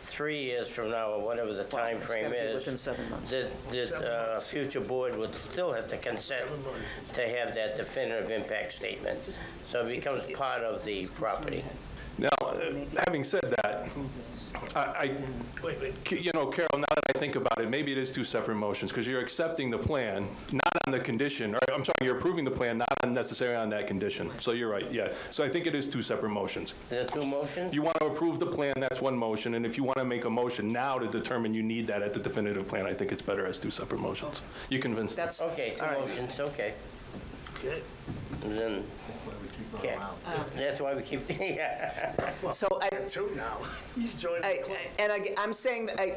three years from now, or whatever the time it's gotta frame be is. within seven months. That, that uh, future board would still have to consent to have that definitive impact statement. So it becomes part of the property. Now, uh, having said that, I, I- you know, Carol, now that I think about it, maybe it is two separate motions, because you're accepting the plan, not on the condition, or I'm sorry, you're approving the plan, not necessarily on that condition. So you're right, yeah. So I think it is two separate motions. The two motions? You want to approve the plan, that's one motion, and if you want to make a motion now to determine you need that at the definitive plan, I think it's better as two separate motions. You convinced me. That's, Okay, two all right. motions, okay. And Then, okay. That's why we keep, yeah. So I, Two now. He's joining I, the club. I- and I, I'm saying, that I,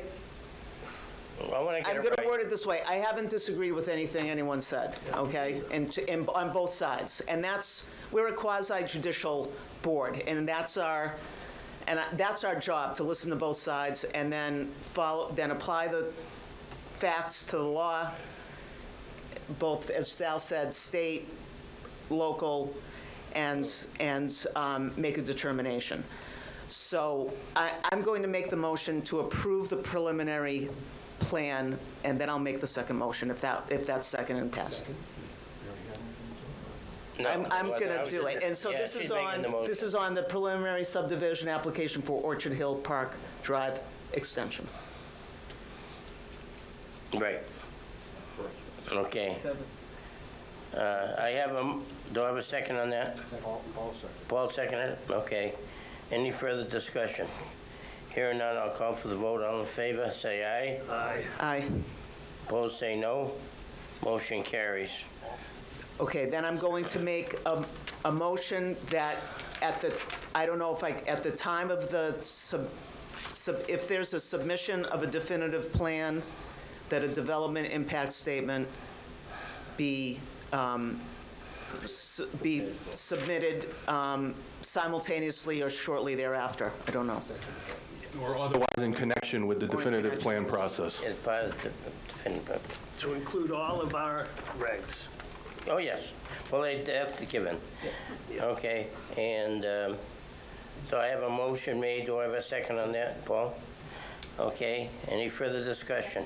I want to get I'm it going to right. word it this way. I haven't disagreed with anything anyone said, okay? And, to- and on both sides. And that's, we're a quasi judicial board, and that's our, and I- that's our job, to listen to both sides and then follow, then apply the facts to the law, both, as Sal said, state, local, and, and um, make a determination. So I, I'm going to make the motion to approve the preliminary plan, and then I'll make the second motion if that, if that's second and passed. No, I'm, I'm well, I gonna Oh, was do just- it. And so yeah, this she's is making on, the motion. this is on the preliminary subdivision application for Orchard Hill Park Drive extension. Right. Okay. Uh, I have a, m- do I have a second on that? Paul seconded it? Okay. Any further discussion? Hearing none, I'll call for the vote. All in favor, say aye. Aye. Aye. Opposed, say no. Motion carries. Okay, then I'm going to make a, a motion that at the, I don't know if I, at the time of the sub, sub, if there's a submission of a definitive plan, that a development impact statement be, um, s- be submitted, um, simultaneously or shortly thereafter. I don't know. Or otherwise in connection with the definitive plan process. It's part of the definitive. To include all of our regs. Oh, yes. Well, they- that's a given. Okay, and um, so I have a motion made. Do I have a second on that, Paul? Okay, any further discussion?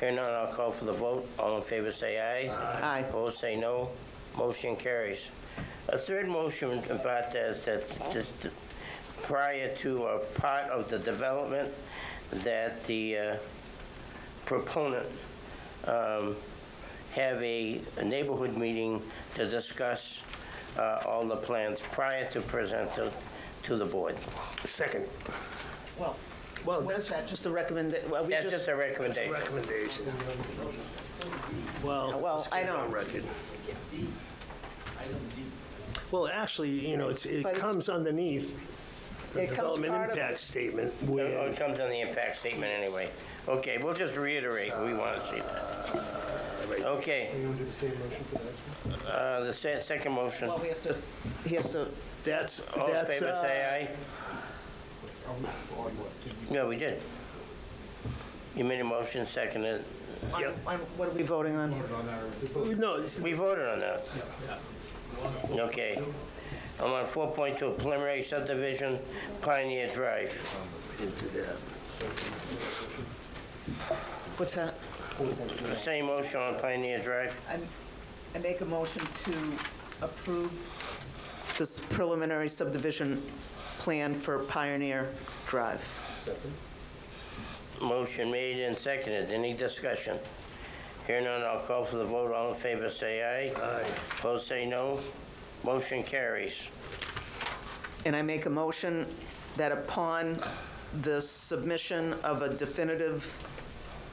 Hearing none, I'll call for the vote. All in favor, say aye. Aye. Opposed, say no. Motion carries. A third motion about that, that that- that prior to a part of the development, that the uh, proponent um, have a a neighborhood meeting to discuss uh, all the plans prior to present to- to the board. Second. Well, Well, what is that's that? Just a recommend, well, we That's just, just a recommendation. recommendation. Well. Well, let's get I it don't- on record. Well, actually, you know, it's, it But it's- comes underneath the It comes development part of impact it. statement Oh, It where, comes on the impact statement anyway. Okay, we'll just reiterate, we want to see that. Okay. Are you going to do the same motion for the next one? Uh, the se- second motion. well, we have to, he has to, that's, All in that's, favor, uh, say aye. No, we did. You made a motion, seconded. on- Yep. on- what are we voting on? no, it's- We voted on that. Okay. I'm on 4.2 preliminary subdivision, Pioneer Drive. What's that? The Same motion on Pioneer Drive. I'm- I make a motion to approve this preliminary subdivision plan for Pioneer Drive. Motion made and seconded. Any discussion? Here none, I'll call for the vote. All in favor, say aye. Aye. Opposed, say no. Motion carries. And I make a motion that upon the submission of a definitive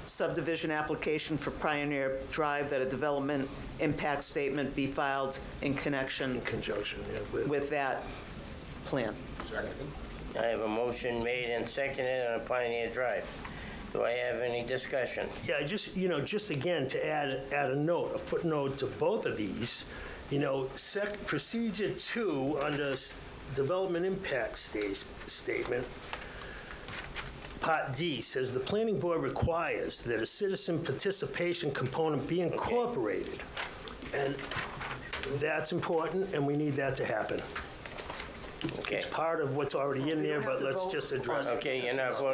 subdivision application for Pioneer Drive, that a development impact statement be filed in connection in conjunction yeah, with, with that plan. I have a motion made and seconded on Pioneer Drive. Do I have any discussion? Yeah, just, you know, just again, to add, add a note, a footnote to both of these, you know, sec, procedure two under s- development impact sta- statement, part D says the planning board requires that a citizen participation component be incorporated. And that's important, and we need that to happen. Okay. It's part of what's already in there, don't have but to let's vote just address it. Okay, you're not voting